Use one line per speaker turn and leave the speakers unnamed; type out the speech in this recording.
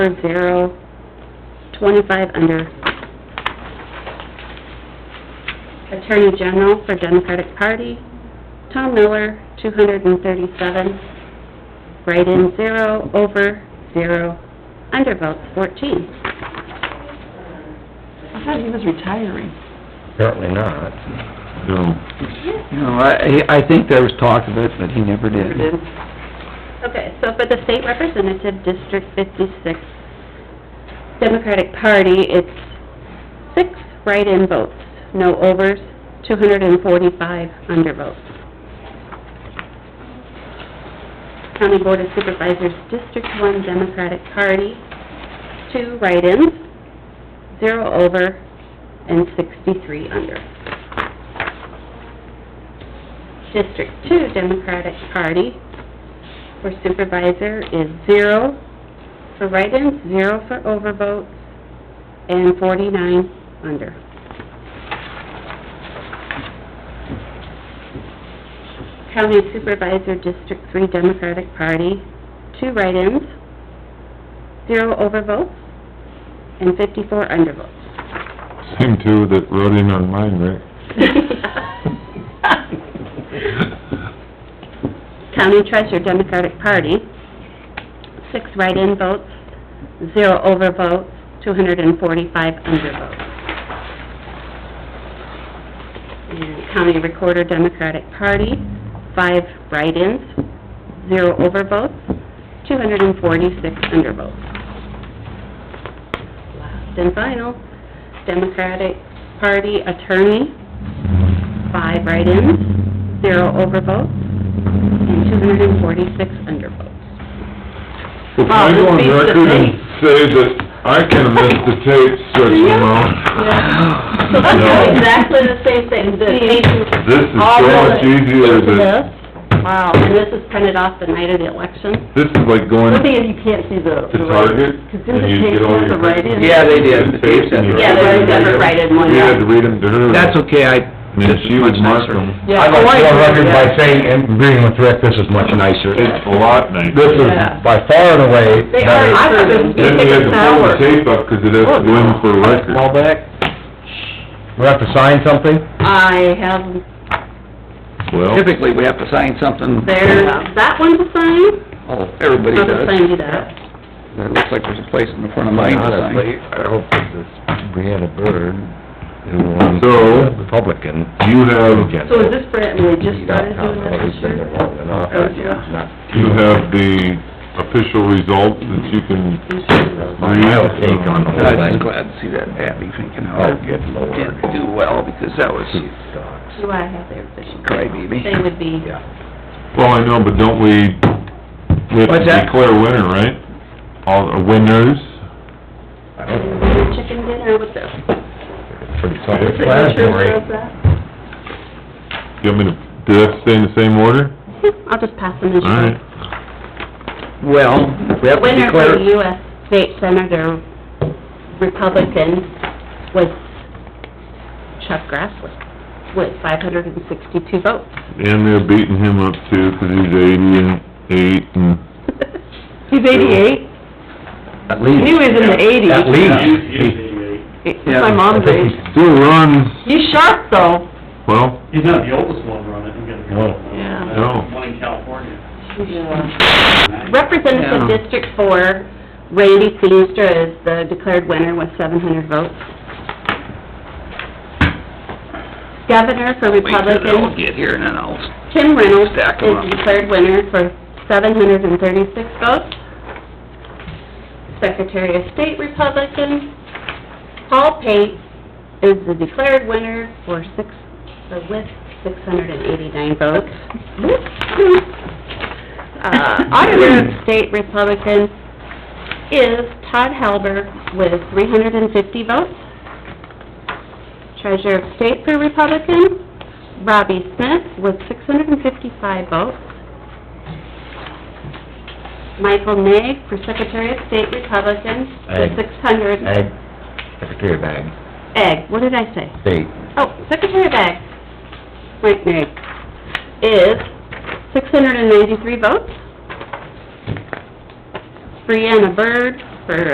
four zero, twenty-five under. Attorney General for Democratic Party, Tom Miller, two hundred and thirty-seven. Write-in zero, over zero, undervotes fourteen.
I thought he was retiring.
Apparently not. No.
No, I, I think there was talk of it, but he never did.
Okay, so for the state representative, District fifty-six, Democratic Party, it's six write-in votes, no overs, two hundred and forty-five undervotes. County Board of Supervisors, District one, Democratic Party, two write-ins, zero over, and sixty-three under. District two, Democratic Party, for supervisor is zero for write-ins, zero for overvotes, and forty-nine under. County Supervisor District Three Democratic Party, two write-ins, zero overvotes, and fifty-four undervotes.
Same two that wrote in on mine, right?
County Treasurer Democratic Party, six write-in votes, zero overvotes, two hundred and forty-five undervotes. And County Recorder Democratic Party, five write-ins, zero overvotes, two hundred and forty-six undervotes. Last and final, Democratic Party Attorney, five write-ins, zero overvotes, and two hundred and forty-six undervotes.
Well, can
Wow,
I go on record and
this beats the tape.
say that I kind of missed the tape stretching
So
around?
that's
No.
exactly the same thing, the agent,
This is
All
so much
the-
easier than,
wow.
And this is printed off the night of the election.
this is like going to
One thing is you can't see the. the writing.
Target
Because didn't
and you
the tape
get all
have
your...
the write-in?
Yeah, they did. The tape said-
You
Yeah, there's a different write-in one.
You had to read them to her.
That's okay, I,
And
this is
she would
much
mark
nicer.
them.
Yeah. I'd like to go on record by
saying, and agreeing with Rick, this is much nicer.
It's a lot nicer.
is Yeah.
by far and away
They are, I thought it
Then
was gonna
we
take
had to pull
us an
the
hour.
tape up because it has to go in for record.
Call back? We have to sign something?
I have,
Well,
Typically, we have to sign something.
there's that one to sign.
Oh, everybody
I'll just
does.
sign you that.
It looks like there's a place in the front of mine to sign.
Honestly, I hope that this Brianna Bird, who runs
So-
the Republican
you have,
agenda.
So is this Brett, and we just
she's out
started
of town,
doing
I think
this
she's
this
been there
year?
long enough.
Oh, yeah.
Not-
you have the official results that you can read.
My take on the whole
I'm just
thing.
glad to see that Abby thinking
Oh,
how it
good lord.
didn't do well, because that was
She sucks.
Do I have their official?
crybaby.
They would be,
Yeah.
Well, I know, but don't we, we have to
What's that?
declare a winner, right? All, the winners?
I don't know,
chicken dinner with the
it's pretty self-explanatory.
signatures of that.
Do you want me to, do that stay in the same order?
I'll just pass them in.
All right.
Well, we
The
have to
winner for the
declare,
US State Senator Republican was Chuck Grassley, with five hundred and sixty-two votes.
And they're beating him up too, 'cause he's eighty and eight and...
He's eighty-eight,
at least.
he was in the eighties.
At least.
My mom's
Yeah.
age.
Still runs,
He's sharp though.
well,
He's not the oldest one running, he's got a couple. of them.
Yeah.
No.
One in California.
Representative
Yeah.
District Four, Randy Feenstra is the declared winner with seven hundred votes. Governor for
Wait till they all
Republican,
get here and then I'll,
Tim Reynolds
Stack 'em up.
is declared winner for seven hundred and thirty-six votes. Secretary of State Republican, Paul Pate is the declared winner for six, uh, with six hundred and eighty-nine votes. Uh, Auditor of State Republican is Todd Halber with three hundred and fifty votes. Treasurer of State for Republican, Robbie Smith with six hundred and fifty-five votes. Michael Nag for Secretary of State Republican with
Ag.
six hundred.
Ag, Secretary of Ag,
Egg, what did I say?
state,
Oh, Secretary of Ag, Mike Nag, is six hundred and ninety-three votes. Brianna Byrd for